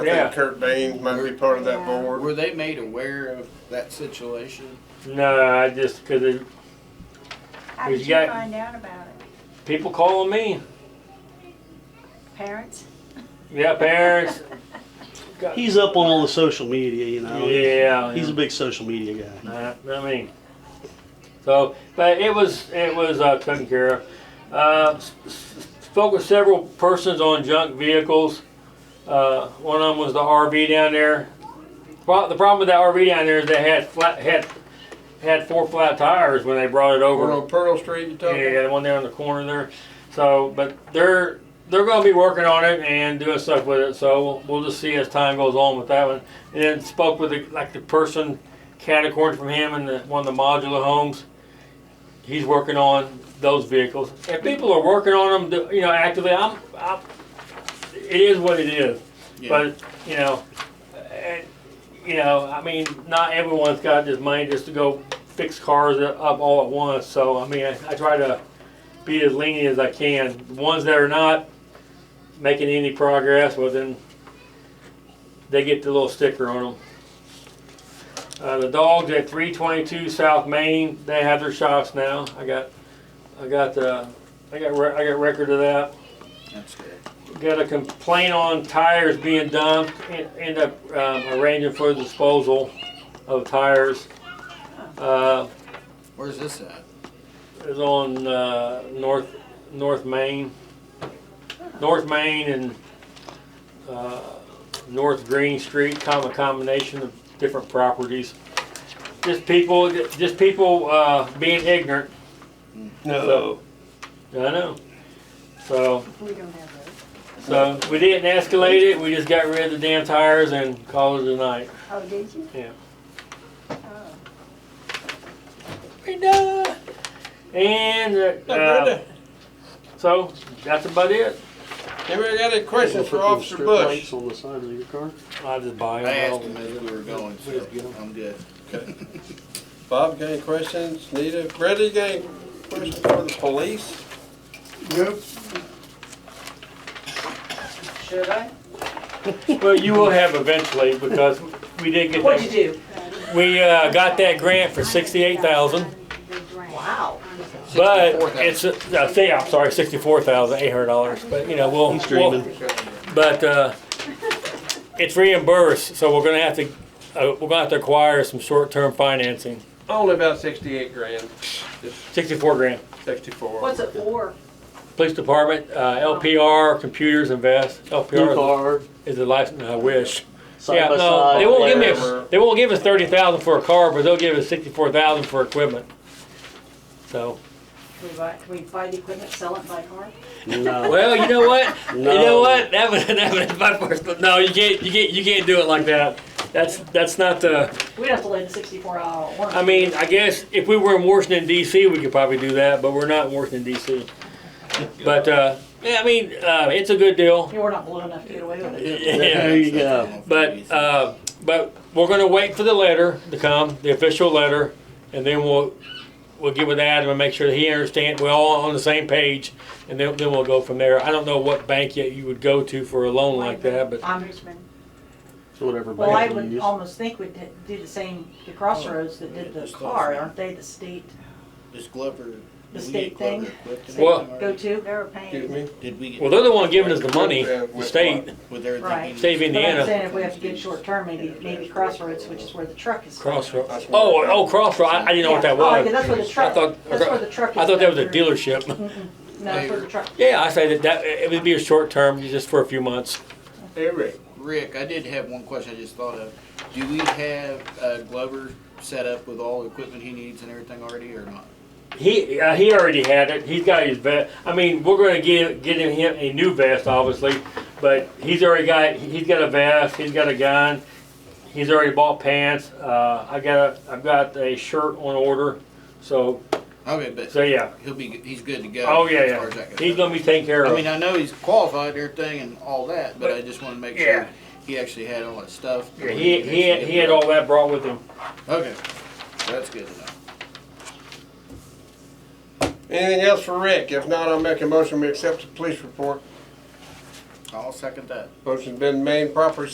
I think Yeah. Kurt Baines might be part of that Yeah. board. Were they made aware of that situation? No, I just because How Who's did you got- find out about it? people calling me, Parents? yeah, parents. He's up on all the social media, you know. Yeah, He's yeah. a big social media guy. Uh, I mean, so, but it was it was uh, taken care of. Uh, s- s- spoke with several persons on junk vehicles. Uh, one of them was the RV down there. Well, the problem with that RV down there is they had flat had had four flat tires when they brought it over. Over on Pearl Street, you talking? Yeah, the one there on the corner there. So, but they're they're going to be working on it and doing stuff with it. So we'll, we'll just see as time goes on with that one. And then spoke with the, like the person, Catacorn from him and the, one of the modular homes. He's working on those vehicles. If people are working on them, you know, actively, I'm, I'm it is what it is. Yeah. But you know, and, you know, I mean, not everyone's got this money just to go fix cars up all at once. So I mean, I, I try to be as lenient as I can. The ones that are not making any progress, well then they get the little sticker on them. Uh, the dogs at 322 South Main, they have their shots now. I got, I got, uh, I got, re- I got record of that. That's good. Got a complaint on tires being dumped, en- end up um, arranging for disposal of tires. Uh, Where's this at? It's on uh, North, North Main, North Main and uh, North Green Street, com- a combination of different properties. Just people, just people uh, being ignorant, No. I know. So, We don't have those. so we didn't escalate it, we just got rid of the damn tires and called it a night. Oh, did you? Yeah. Oh. And uh, uh, so that's about it. Anybody got any questions for Put those Officer strip Bush? lights On the sides of your car. I just buy I them. asked all. him as we were going, so I'm good. Bob, got any questions? Nita, Greta, you got any questions for the police? Should I? Well, you will have eventually because we did get What'd that. you do? We uh, got that grant for sixty-eight thousand, Wow. but 64,000. it's a, I say I'm sorry, sixty-four thousand eight hundred dollars. But you know we'll, He's we'll dreaming. but uh, it's reimbursed, so we're gonna have to uh, we're gonna have to acquire some short-term financing. Only about sixty-eight grand, just Sixty-four grand. sixty-four. What's it for? Police department, uh, LPR, computers invest. New LPR car, is the license I wish. side yeah, by no, side. they won't give me. whatever. A, they won't give us thirty thousand for a car, but they'll give us sixty-four thousand for equipment. So, Can we buy, can we buy the equipment, sell it, buy a car? No. well, you know what? You know No. what? That was that was my first. No, you can't. You can't. You can't do it like that. That's that's not the. We'd have to lay the sixty-four hour warranty. I mean, I guess if we were in Washington D.C., we could probably do that, but we're not in Washington D.C. But uh, yeah, I mean, uh, it's a good deal. You were not blue enough to get away with it. There you go. But, uh, but we're gonna wait for the letter to come, the official letter, and then we'll, we'll get with Adam and make sure that he understands, we're all on the same page, and then, then we'll go from there. I don't know what bank yet you would go to for a loan like that, but, I'm Richmond. It's whatever Well, I bank you would use. almost think we'd do the same, the Crossroads that did the car, aren't they the state? Does Glover, did The we state get Glover thing? equipped in Well- anything Go already? to? They were Excuse paying. me? Did we well, get, they're the one giving us the money, the state, with everything? Right. in- state of But I'm Indiana, saying if we have to get short term, maybe, maybe Crossroads, which is where the truck is. Crossroads. Oh, oh, Crossroads, I, I didn't know what that Yeah. Oh, yeah, was. that's where the I truck, thought, that's where the truck is. I thought that was a back there. dealership. No, that's where the truck. Yeah, I say that, that, it would be a short term, just for a few months. Eric, Rick, I did have one question I just thought of. Do we have uh, Glover set up with all the equipment he needs and everything already or not? He uh, he already had it. He's got his vest. I mean, we're going to get get him- him a new vest, obviously, but he's already got he's got a vest. He's got a gun. He's already bought pants. Uh, I got a I've got a shirt on order. So Okay, but so yeah. he'll be, he's good to go. Oh yeah as far yeah. as that goes. He's going to be taken care I of. mean, I know he's qualified and everything and all that, but I just want to make Yeah. sure he actually had all that stuff. Yeah, he he had, he had all that brought with him. Okay, that's good to know. anything else for Rick? If not, I'll make a motion, we accept the police report. I'll second that. Motion's been made, properly